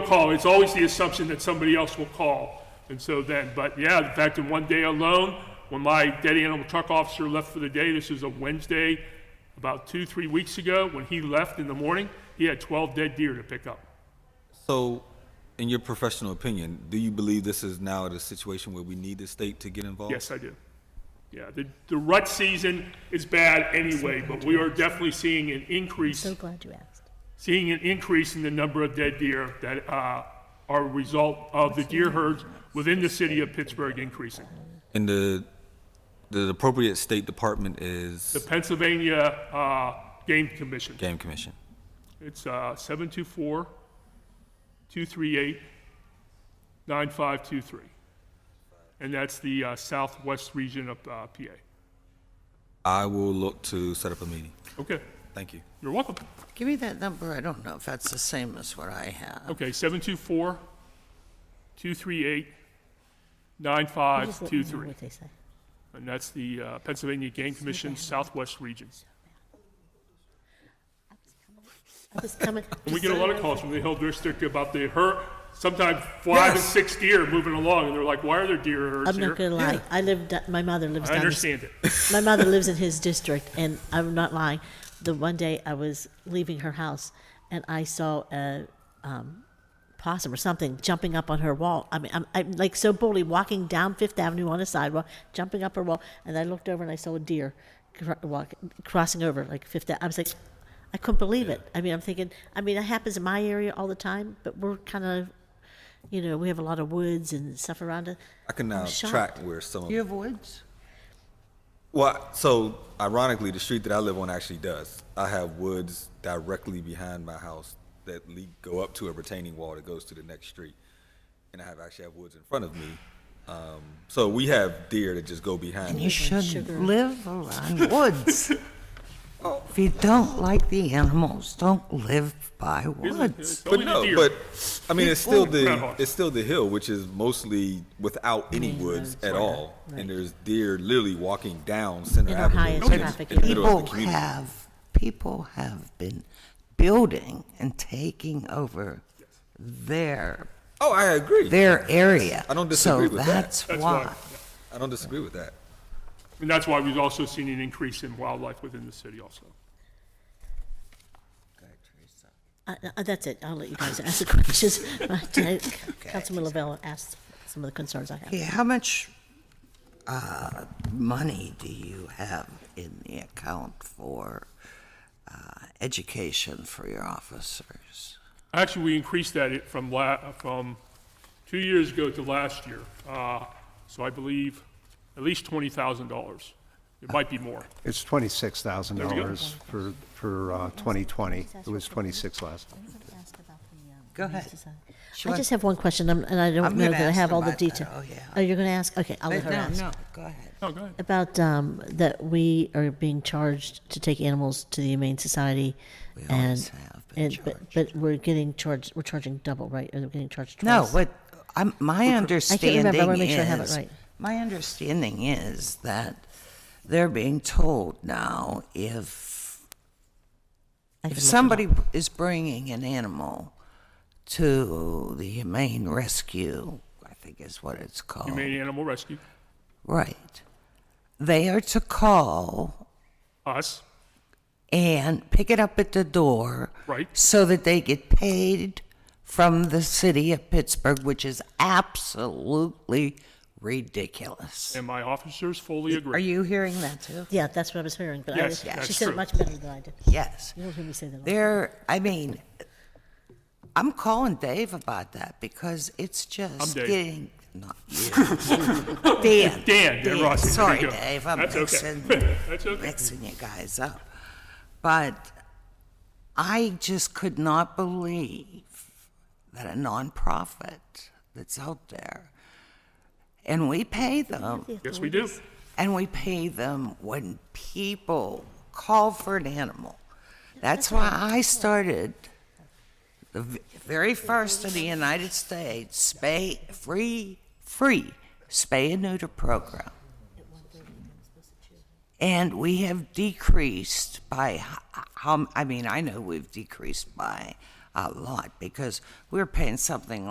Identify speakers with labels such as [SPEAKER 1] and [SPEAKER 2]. [SPEAKER 1] Don't call, it's always the assumption that somebody else will call. And so then, but yeah, in fact, in one day alone, when my dead animal truck officer left for the day, this is a Wednesday, about two, three weeks ago, when he left in the morning, he had 12 dead deer to pick up.
[SPEAKER 2] So, in your professional opinion, do you believe this is now the situation where we need the state to get involved?
[SPEAKER 1] Yes, I do. Yeah, the, the rut season is bad anyway, but we are definitely seeing an increase
[SPEAKER 3] So glad you asked.
[SPEAKER 1] seeing an increase in the number of dead deer that uh, are a result of the deer herds within the city of Pittsburgh increasing.
[SPEAKER 2] And the, the appropriate state department is
[SPEAKER 1] The Pennsylvania uh, Game Commission,
[SPEAKER 2] Game Commission.
[SPEAKER 1] it's uh, 724 238 9523. And that's the uh, southwest region of uh, PA.
[SPEAKER 2] I will look to set up a meeting.
[SPEAKER 1] Okay,
[SPEAKER 2] Thank you.
[SPEAKER 1] you're welcome.
[SPEAKER 4] Give me that number. I don't know if that's the same as what I have.
[SPEAKER 1] Okay, 724 238 9523.
[SPEAKER 3] What they say.
[SPEAKER 1] And that's the uh, Pennsylvania Game Commission Southwest Region.
[SPEAKER 3] I was coming.
[SPEAKER 1] And we get a lot of calls from the Hill District about the her, sometimes five and
[SPEAKER 4] Yes.
[SPEAKER 1] six deer moving along, and they're like, why are there deer herds
[SPEAKER 3] I'm not
[SPEAKER 1] here?
[SPEAKER 3] gonna lie. I lived. My mother lives.
[SPEAKER 1] I
[SPEAKER 3] down the
[SPEAKER 1] understand it.
[SPEAKER 3] my mother lives in his district, and I'm not lying. The one day I was leaving her house, and I saw a um, possum or something jumping up on her wall. I mean, I'm, I'm like so boldly walking down Fifth Avenue on a sidewalk, jumping up her wall, and I looked over and I saw a deer cr- walk, crossing over like Fifth. Ave- I was like, I couldn't believe it. I mean, I'm thinking. I mean, it happens in my area all the time, but we're kind of, you know, we have a lot of woods and stuff around us.
[SPEAKER 2] I can now
[SPEAKER 3] I'm shocked.
[SPEAKER 2] track where some of
[SPEAKER 4] You have woods?
[SPEAKER 2] Well, so ironically, the street that I live on actually does. I have woods directly behind my house that lead, go up to a retaining wall that goes to the next street, and I have actually have woods in front of me. Um, so we have deer that just go behind.
[SPEAKER 4] You
[SPEAKER 2] me.
[SPEAKER 4] should live around woods. If you don't like the animals, don't live by woods.
[SPEAKER 1] Only
[SPEAKER 2] But
[SPEAKER 1] the
[SPEAKER 2] no,
[SPEAKER 1] deer.
[SPEAKER 2] but I mean, it's still the
[SPEAKER 1] Groundhog.
[SPEAKER 2] it's still the hill, which is mostly without any woods at all, and there's deer literally walking down Center
[SPEAKER 3] In our
[SPEAKER 2] Avenue,
[SPEAKER 3] highest
[SPEAKER 2] which is
[SPEAKER 3] traffic
[SPEAKER 2] in the middle of the
[SPEAKER 4] People
[SPEAKER 2] community.
[SPEAKER 4] have, people have been building and taking over their,
[SPEAKER 2] Oh, I agree.
[SPEAKER 4] their area.
[SPEAKER 2] I don't disagree with that.
[SPEAKER 4] So that's
[SPEAKER 1] That's
[SPEAKER 4] why.
[SPEAKER 1] why.
[SPEAKER 2] I don't disagree with that.
[SPEAKER 1] And that's why we've also seen an increase in wildlife within the city also.
[SPEAKER 3] Uh, uh, that's it. I'll let you guys ask the questions. But, uh, Councilman Lavelle asked some of the concerns I have.
[SPEAKER 4] Yeah, how much uh, money do you have in the account for uh, education for your officers?
[SPEAKER 1] Actually, we increased that it- from la, from two years ago to last year. Uh, So I believe at least $20,000. It might be more.
[SPEAKER 5] It's twenty-six thousand dollars for, for uh, twenty twenty. It was twenty-six last.
[SPEAKER 4] Go ahead. She
[SPEAKER 3] I
[SPEAKER 4] wants-
[SPEAKER 3] just have one question, and and I don't
[SPEAKER 4] I'm
[SPEAKER 3] know
[SPEAKER 4] gonna
[SPEAKER 3] that I
[SPEAKER 4] ask
[SPEAKER 3] have all the
[SPEAKER 4] about that.
[SPEAKER 3] detail.
[SPEAKER 4] Oh, yeah.
[SPEAKER 3] Oh, you're going to ask? Okay, I'll let her
[SPEAKER 4] No,
[SPEAKER 3] ask.
[SPEAKER 4] no, go ahead.
[SPEAKER 1] Oh, go ahead.
[SPEAKER 3] About um, that we are being charged to take animals to the Humane Society.
[SPEAKER 4] We
[SPEAKER 3] and-
[SPEAKER 4] always have been
[SPEAKER 3] and- but- But we're getting charged, we're charging double, right? Or we're getting charged twice?
[SPEAKER 4] No, what, I'm, my
[SPEAKER 3] remember. I
[SPEAKER 4] understanding
[SPEAKER 3] wanna make sure I have it
[SPEAKER 4] is,
[SPEAKER 3] right.
[SPEAKER 4] my understanding is that they're being told now if
[SPEAKER 3] I can look
[SPEAKER 4] If
[SPEAKER 3] it
[SPEAKER 4] somebody is bringing an animal to the humane rescue, I think is what it's called.
[SPEAKER 1] Humane Animal Rescue,
[SPEAKER 4] Right. They are to call
[SPEAKER 1] us,
[SPEAKER 4] and pick it up at the door.
[SPEAKER 1] Right.
[SPEAKER 4] So that they get paid from the city of Pittsburgh, which is absolutely ridiculous.
[SPEAKER 1] and my officers fully
[SPEAKER 4] Are
[SPEAKER 1] agree.
[SPEAKER 4] you hearing that too?
[SPEAKER 3] up. Yeah, that's what I was hearing, but I,
[SPEAKER 1] Yes,
[SPEAKER 3] she
[SPEAKER 1] that's
[SPEAKER 3] said
[SPEAKER 1] true.
[SPEAKER 3] it much better than I did.
[SPEAKER 4] Yes.
[SPEAKER 3] You don't hear me say that. a lot.
[SPEAKER 4] There, I mean, I'm calling Dave about that because it's
[SPEAKER 1] I'm
[SPEAKER 4] just
[SPEAKER 1] Dave.
[SPEAKER 4] getting, not you. Dan.
[SPEAKER 1] Dan, Dan Rossi, there
[SPEAKER 4] Sorry,
[SPEAKER 1] you go.
[SPEAKER 4] Dave, I'm
[SPEAKER 1] That's okay.
[SPEAKER 4] mixing,
[SPEAKER 1] That's okay.
[SPEAKER 4] mixing you guys up. But I just could not believe that a nonprofit that's out there, and we pay them
[SPEAKER 1] Yes, we do.
[SPEAKER 4] and we pay them when people call for an animal. That's why I started the v- very first in the United States spay free free spay and neuter program. And we have decreased by h- how I mean I know we've decreased by a lot because we're paying something